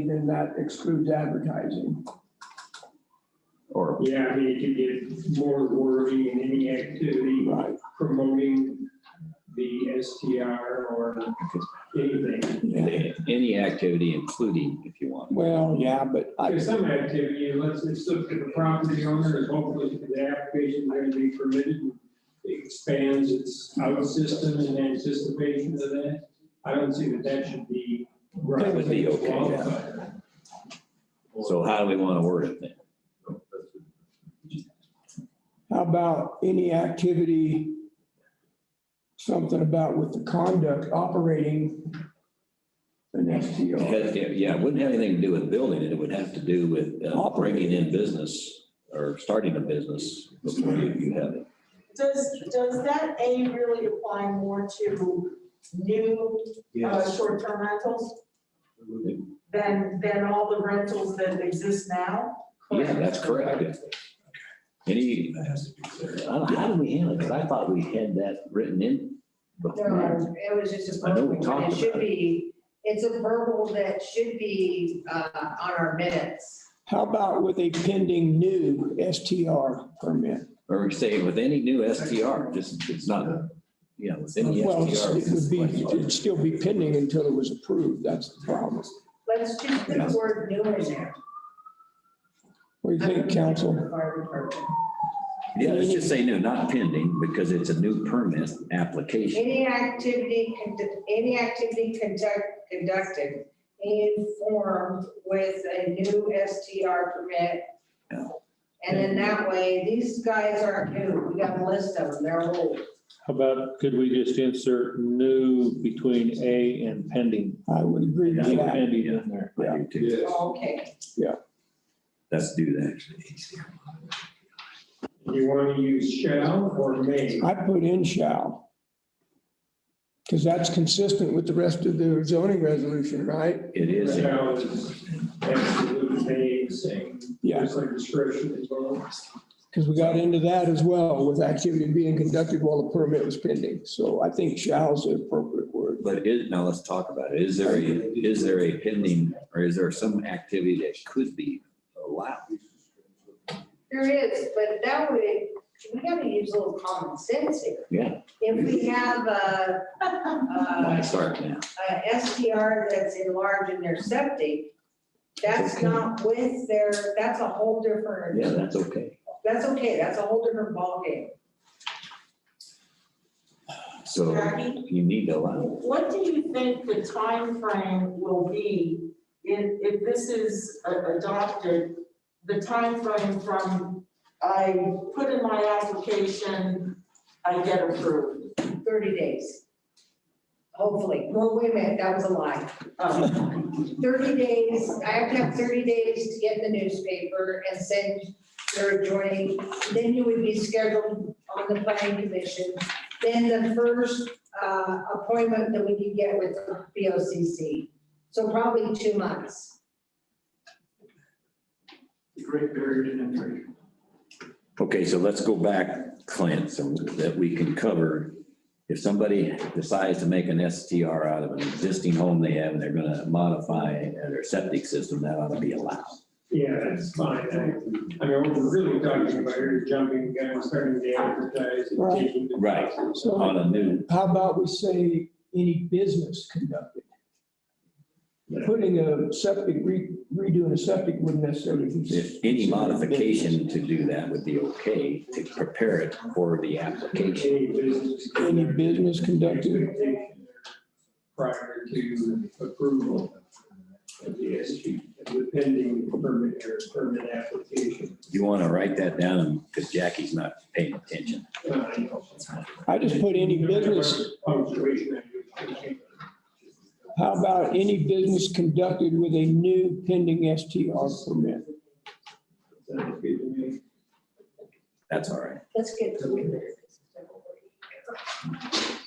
then that excludes advertising. or Yeah, I mean, you could get more wording in any activity Right. promoting the STR or anything. Yeah. any activity, including if you want. Well, yeah, but I, Because some activity, let's, it's up to the property owner, is hopefully the application going to be permitted, and expands its out system in anticipation of that. I don't see that that should be. That would be okay, yeah. So how do we want to word it then? how about any activity, something about with the conduct operating an It STR? had- Yeah, it wouldn't have anything to do with building it. It would have to do with uh, breaking in business or starting a business before you you have it. Does, does that A really apply more to new uh, short-term rentals than, than all the rentals that exist now? Yeah, that's correct. Any, I don't- how do we handle it? Because I thought we had that written in before. No, it was just a I know we verbal, talked and it should about it. be, it's a verbal that should be uh, on our minutes. How about with a pending new STR permit? Or we say with any new STR, just, it's not, yeah, with any Well, it's- STR. it would be, it'd still be pending until it was approved, that's the problem. Let's just put the word new in there. What do you think, council? Fire department. Yeah, let's just say new, not pending, because it's a new permit application. Any activity, condu- any activity conduct, conducted in form with a new STR permit. Yeah. And then that way, these guys aren't new, we got a list of them, they're old. How about, could we just insert new between A and pending? I would agree with Leave that. Pending in there. I do too. Okay, Let's do that. You want to use shall or may? I put in shall. Because that's consistent with the rest of the zoning resolution, right? It is, Shall is absolute, may is same. Yeah, Just like discretion as well. because we got into that as well with activity being conducted while the permit was pending. So I think shall's the appropriate word. but is, now let's talk about it. Is there a, is there a pending, or is there some activity that could be allowed? there is, but that way, we gotta use a little common sense here. Yeah. If we have a, a Start now. a STR that's enlarged in their septic, that's not with their, that's a whole different. Yeah, that's okay. That's okay, that's a whole different ballgame. So Jackie? you need to allow. What do you think the time frame will be if, if this is a- adopted? The time frame from I put in my application, I get approved. thirty days. Hopefully, well, wait a minute, that was a lie. Um, Thirty days, I have to have thirty days to get in the newspaper and send your adjoining, then you would be scheduled on the planning commission. Then the first uh, appointment that we could get with the B O C C, so probably two months. Great barrier to entry. Okay, so let's go back, Clint, so that we can cover. If somebody decides to make an STR out of an existing home they have, and they're gonna modify their septic system, that ought to be allowed. Yeah, that's fine. I I mean, what we're really talking about here is jumping the gun, starting to advertise and Right. taking the. Right. So On a new, how about we say any business conducted? Putting a septic, re- redoing a septic wouldn't necessarily. be- if any modification to do that would be okay to prepare it for the application. Any business. Any business conducted? Expectation Prior to approval of the SG, of the pending permit or permit application. You wanna write that down, because Jackie's not paying attention. Uh, you know, I just put any business Punctuation. I think. How about any business conducted with a new pending STR permit? Sounds good to me. That's all right. Let's get to it.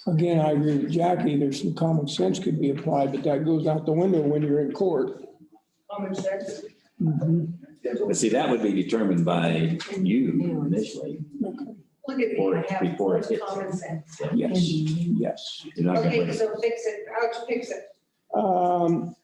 Again, I agree with Jackie, there's some common sense could be applied, but that goes out the window when you're in court. Common sense. Mhm. But see, that would be determined by you initially. Look at Or me, I before it have hits. common sense. Yes, yes. You're not gonna Okay, put- so fix it, I'll fix it. Um,